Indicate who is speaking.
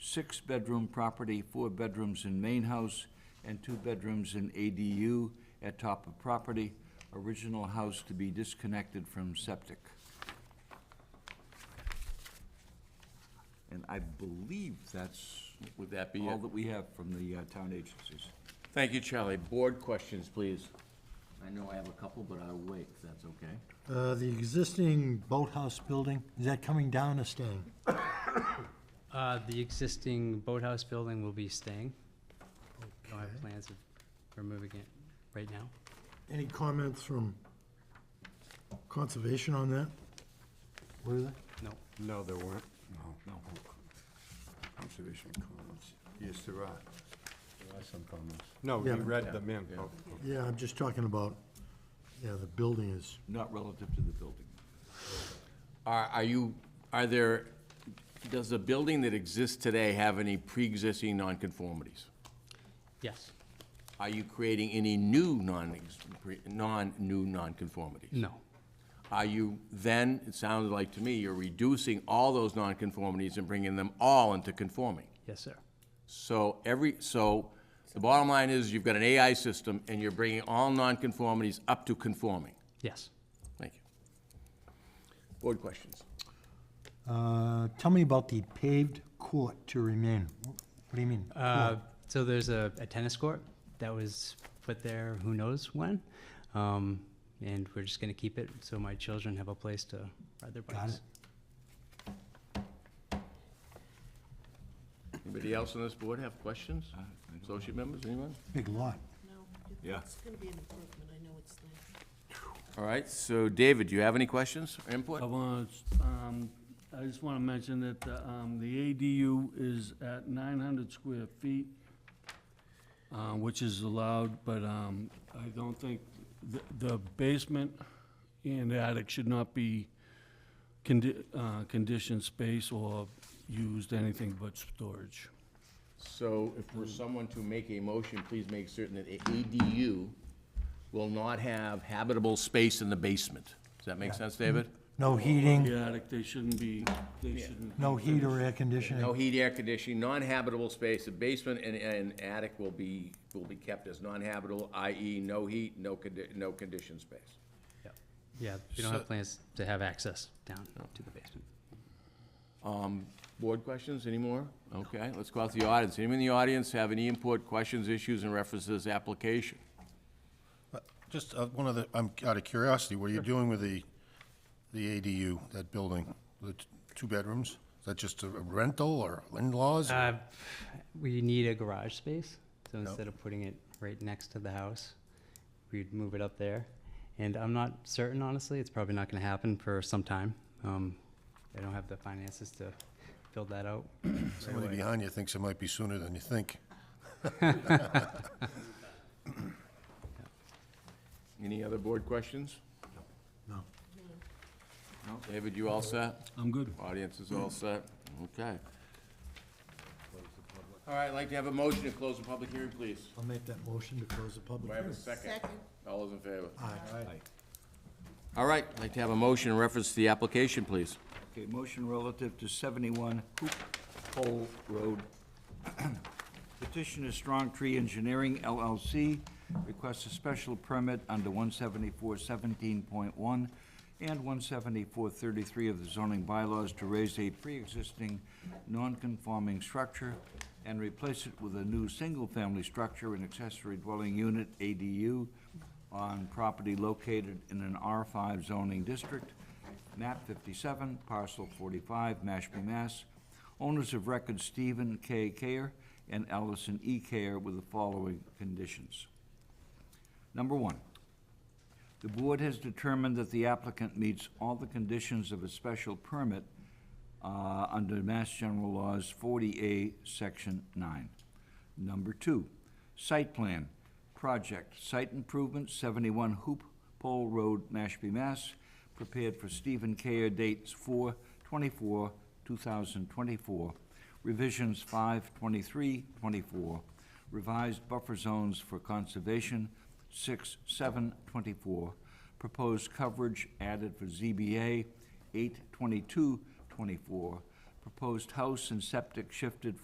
Speaker 1: six-bedroom property, four bedrooms in main house, and two bedrooms in ADU at top of property. Original house to be disconnected from septic. And I believe that's
Speaker 2: Would that be
Speaker 1: all
Speaker 2: it?
Speaker 1: that we have from the uh, town agencies.
Speaker 2: Thank you, Charlie. Board questions, please. I know I have a couple, but I'll wait, if that's okay.
Speaker 3: Uh, The existing boathouse building, is that coming down or staying?
Speaker 4: Uh, the existing boathouse building will be staying. Don't have plans of removing it right now.
Speaker 3: Any comments from conservation on that? What is it?
Speaker 4: No.
Speaker 5: No, there weren't, no. No. Conservation comments. Yes, there are. There are some comments. No, we
Speaker 3: Yeah.
Speaker 5: read them in. Oh,
Speaker 3: Yeah, I'm just talking about, yeah, the building is,
Speaker 1: Not relative to the building.
Speaker 2: Are, are you, are there, does the building that exists today have any pre-existing nonconformities?
Speaker 4: Yes.
Speaker 2: Are you creating any new non, non-new nonconformities?
Speaker 4: No.
Speaker 2: Are you then, it sounds like to me, you're reducing all those nonconformities and bringing them all into conforming?
Speaker 4: Yes, sir.
Speaker 2: So every, so the bottom line is you've got an AI system and you're bringing all nonconformities up to conforming.
Speaker 4: Yes.
Speaker 2: Thank you. Board questions?
Speaker 3: uh, tell me about the paved court to remain. What do you mean?
Speaker 4: Uh, so there's a, a tennis court that was put there who knows when. Um, and we're just gonna keep it so my children have a place to ride their bikes.
Speaker 3: Got it.
Speaker 2: Anybody else on this board have questions? Associate members, anyone?
Speaker 3: Big lot.
Speaker 6: No,
Speaker 1: Yeah.
Speaker 6: it's gonna be an improvement, I know it's there.
Speaker 2: All right, so David, do you have any questions or
Speaker 7: I
Speaker 2: input?
Speaker 7: want, um, I just want to mention that, the, um, the ADU is at nine hundred square feet, uh, which is allowed, but, um, I don't think, the, the basement and attic should not be condi- uh, conditioned space or used anything but storage.
Speaker 2: So if we're someone to make a motion, please make certain that a ADU will not have habitable space in the basement. Does that make sense, David?
Speaker 3: No heating,
Speaker 7: The attic, they shouldn't be, they shouldn't.
Speaker 3: no heat or
Speaker 2: No
Speaker 3: air conditioning.
Speaker 2: heat, air conditioning, non-habitable space, the basement and, and attic will be, will be kept as non-habitable, i.e. no heat, no condi, no conditioned space.
Speaker 4: Yep. Yeah, we don't have plans to have access down to the basement.
Speaker 2: Board questions anymore? Okay, let's go out to the audience. Anyone in the audience have any input, questions, issues, and references, application?
Speaker 8: Just uh, one other, I'm out of curiosity, what are you doing with the, the ADU, that building, the t- two bedrooms? Is that just a rental or in-laws? or-
Speaker 4: Uh, we need a garage space, so instead of putting it right next to the house, we'd move it up there. And I'm not certain, honestly, it's probably not gonna happen for some time. Um, I don't have the finances to build that out.
Speaker 8: Somebody behind you thinks it might be sooner than you think.
Speaker 2: Any other board questions?
Speaker 3: No.
Speaker 2: No, David, you all set?
Speaker 7: I'm good.
Speaker 2: Audience is all set? Okay. All right, I'd like to have a motion to close the public hearing, please.
Speaker 3: I'll make that motion to close the public
Speaker 2: Do I have
Speaker 3: hearing.
Speaker 2: a second?
Speaker 6: Second.
Speaker 2: All those in favor?
Speaker 3: Aye.
Speaker 2: All right, I'd like to have a motion in reference to the application, please.
Speaker 1: Okay, motion relative to 71 Hoop Hole Road. Petition is Strong Tree Engineering LLC, requests a special permit under 174-17.1 and 174-33 of the zoning bylaws to raise a pre-existing non-conforming structure and replace it with a new single-family structure and accessory dwelling unit, ADU, on property located in an R5 zoning district, map 57, parcel 45, Mashpee, Mass. Owners of record Stephen K. Care and Allison E. Care with the following conditions. Number one, the board has determined that the applicant meets all the conditions of a special permit uh, under Mass General Laws 40A, Section 9. Number two, site plan, project, site improvement, 71 Hoop Pole Road, Mashpee, Mass, prepared for Stephen Care, dates 4/24/2024, revisions 5/23/24, revised buffer zones for conservation, 6/7/24, proposed coverage added for ZBA, 8/22/24, proposed house and septic shifted